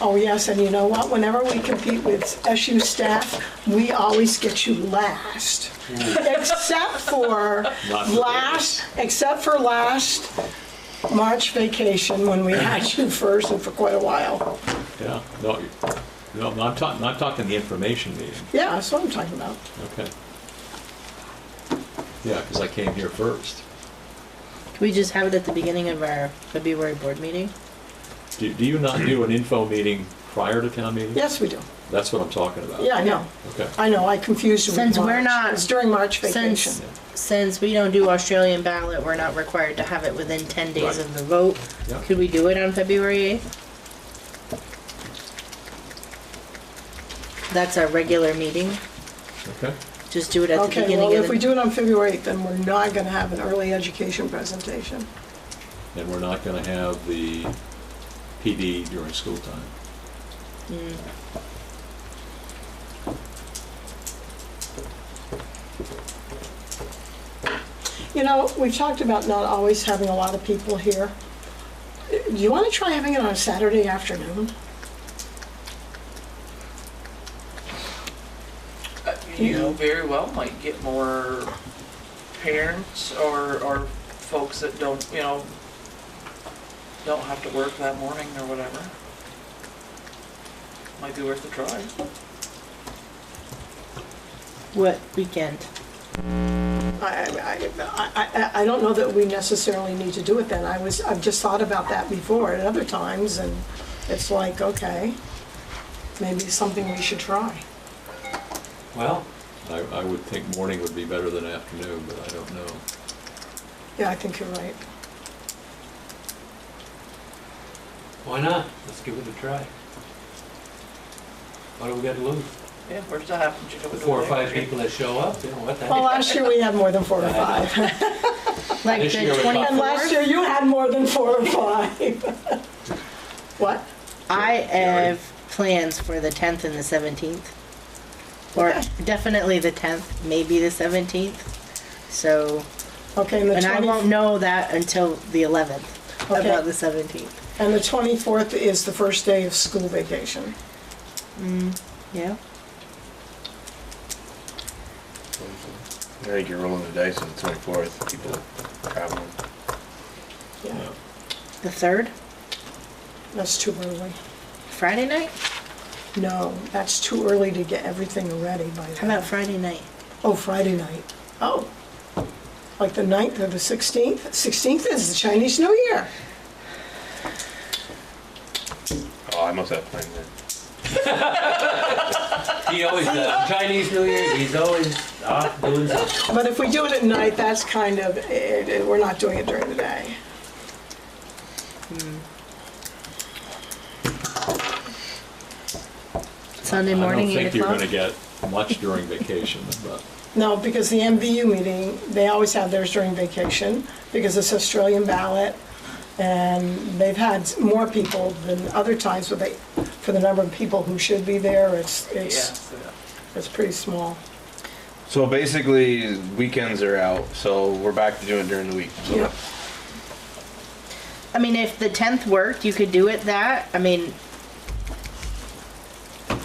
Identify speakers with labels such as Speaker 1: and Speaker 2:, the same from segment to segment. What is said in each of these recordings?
Speaker 1: Oh, yes, and you know what? Whenever we compete with SU staff, we always get you last. Except for
Speaker 2: Not for
Speaker 1: last, except for last March vacation when we had you first and for quite a while.
Speaker 2: Yeah, no, you- no, I'm not talking, I'm talking the information meeting,
Speaker 1: Yeah, that's what I'm talking about.
Speaker 2: okay. Yeah, because I came here first.
Speaker 3: Can we just have it at the beginning of our February board meeting?
Speaker 2: Do, do you not do an info meeting prior to town meeting?
Speaker 1: Yes, we do.
Speaker 2: That's what I'm talking about.
Speaker 1: Yeah, I know.
Speaker 2: Okay.
Speaker 1: I know, I confused you with
Speaker 3: Since we're
Speaker 1: March.
Speaker 3: not-
Speaker 1: It's during March vacation.
Speaker 3: Since, since we don't do Australian ballot, we're not required to have it within ten
Speaker 2: Right.
Speaker 3: days of the vote.
Speaker 2: Yeah.
Speaker 3: Could we do it on February eighth? That's our regular meeting.
Speaker 2: Okay,
Speaker 3: Just do it at the
Speaker 1: Okay, well,
Speaker 3: beginning
Speaker 1: if
Speaker 3: of
Speaker 1: we
Speaker 3: the.
Speaker 1: do it on February 8th, then we're not going to have an early education presentation.
Speaker 2: and we're not gonna have the PD during school time.
Speaker 3: Mm.
Speaker 1: You know, we've talked about not always having a lot of people here. Do you want to try having it on a Saturday afternoon?
Speaker 4: You very well might get more parents or, or folks that don't, you know, don't have to work that morning or whatever. Might be worth a try.
Speaker 3: What weekend?
Speaker 1: I, I, I, I- I don't know that we necessarily need to do it then. I was, I've just thought about that before at other times, and it's like, okay, maybe it's something we should try.
Speaker 5: Well,
Speaker 2: I, I would think morning would be better than afternoon, but I don't know.
Speaker 1: Yeah, I think you're right.
Speaker 5: why not? Let's give it a try. What do we got to lose?
Speaker 4: Yeah, we're still having to do it.
Speaker 5: The four or
Speaker 4: over
Speaker 5: five
Speaker 4: there.
Speaker 5: people that show up, you know, what the
Speaker 1: Well,
Speaker 5: heck?
Speaker 1: last year we had more than four or five.
Speaker 3: Like
Speaker 5: This
Speaker 3: the
Speaker 5: year was about-
Speaker 1: And last year
Speaker 3: twenty-fourth?
Speaker 1: you had more than four or five. What?
Speaker 3: I have plans for the tenth and the seventeenth. Or
Speaker 1: Okay.
Speaker 3: definitely the tenth, maybe the seventeenth. So
Speaker 1: Okay, and the
Speaker 3: And I won't
Speaker 1: 20,
Speaker 3: know that until the 11th,
Speaker 1: Okay.
Speaker 3: about the 17th.
Speaker 1: and the 24th is the first day of school vacation.
Speaker 3: Yeah?
Speaker 6: I think you're rolling the dice on the twenty-fourth, people are traveling.
Speaker 1: Yeah,
Speaker 3: The 3rd?
Speaker 1: that's too early.
Speaker 3: Friday night?
Speaker 1: No, that's too early to get everything ready by then.
Speaker 3: How about Friday night?
Speaker 1: Oh, Friday night. Oh. Like the 9th or the 16th? 16th is the Chinese New Year.
Speaker 6: Oh, I must have planned that.
Speaker 5: He always, uh, Chinese New Year, he's always off doing something.
Speaker 1: But if we do it at night, that's kind of, it- it- we're not doing it during the day.
Speaker 3: Sunday morning, 8
Speaker 2: I don't
Speaker 3: o'clock?
Speaker 2: think you're gonna get much during vacation, but,
Speaker 1: No, because the MVU meeting, they always have theirs during vacation because it's Australian ballot. And they've had more people than other times, but they, for the number of people who should be there, it's,
Speaker 4: Yeah,
Speaker 1: it's,
Speaker 4: so,
Speaker 1: it's pretty small.
Speaker 6: So basically, weekends are out, so we're back to doing it during the week. So
Speaker 1: Yep.
Speaker 3: I mean, if the 10th worked, you could do it that. I mean,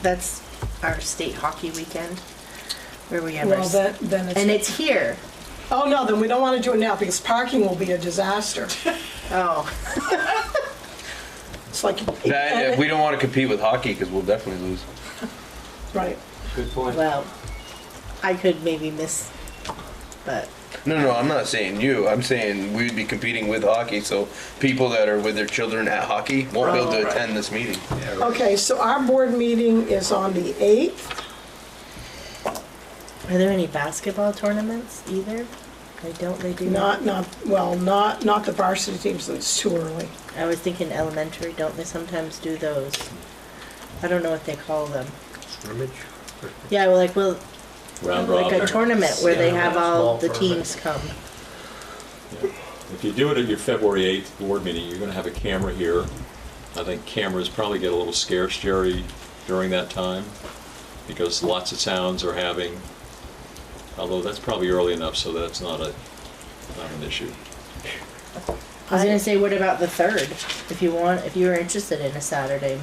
Speaker 3: that's our state hockey weekend where we have our.
Speaker 1: Well,
Speaker 3: s-
Speaker 1: then, then
Speaker 3: And
Speaker 1: it's,
Speaker 3: it's here.
Speaker 1: oh, no, then we don't want to do it now because parking will be a disaster.
Speaker 3: Oh,
Speaker 1: It's like.
Speaker 6: That, we don't want to compete with hockey because we'll definitely lose.
Speaker 1: Right.
Speaker 5: Good point.
Speaker 3: well, I could maybe miss, but
Speaker 6: No, no, I'm not saying you. I'm saying we'd be competing with hockey, so people that are with their children at hockey won't be able
Speaker 3: Oh,
Speaker 6: to
Speaker 3: right.
Speaker 6: attend this meeting.
Speaker 1: Okay, so our board meeting is on the 8th.
Speaker 3: are there any basketball tournaments either? I don't, they do
Speaker 1: Not, not, well, not, not the varsity teams, it's too early.
Speaker 3: I was thinking elementary, don't they sometimes do those? I don't know what they call them.
Speaker 7: scrimmage?
Speaker 3: Yeah, well, like, well,
Speaker 2: round
Speaker 3: like
Speaker 2: robin.
Speaker 3: a tournament where they
Speaker 7: Yeah,
Speaker 3: have all
Speaker 7: small
Speaker 3: the
Speaker 7: tournament.
Speaker 3: teams come.
Speaker 2: Yeah. If you do it at your February 8th board meeting, you're going to have a camera here. I think cameras probably get a little scarce, Jerry, during that time, because lots of towns are having, although that's probably early enough, so that's not a, not an issue.
Speaker 3: I was gonna say, what about the third? If you want, if you were interested in a Saturday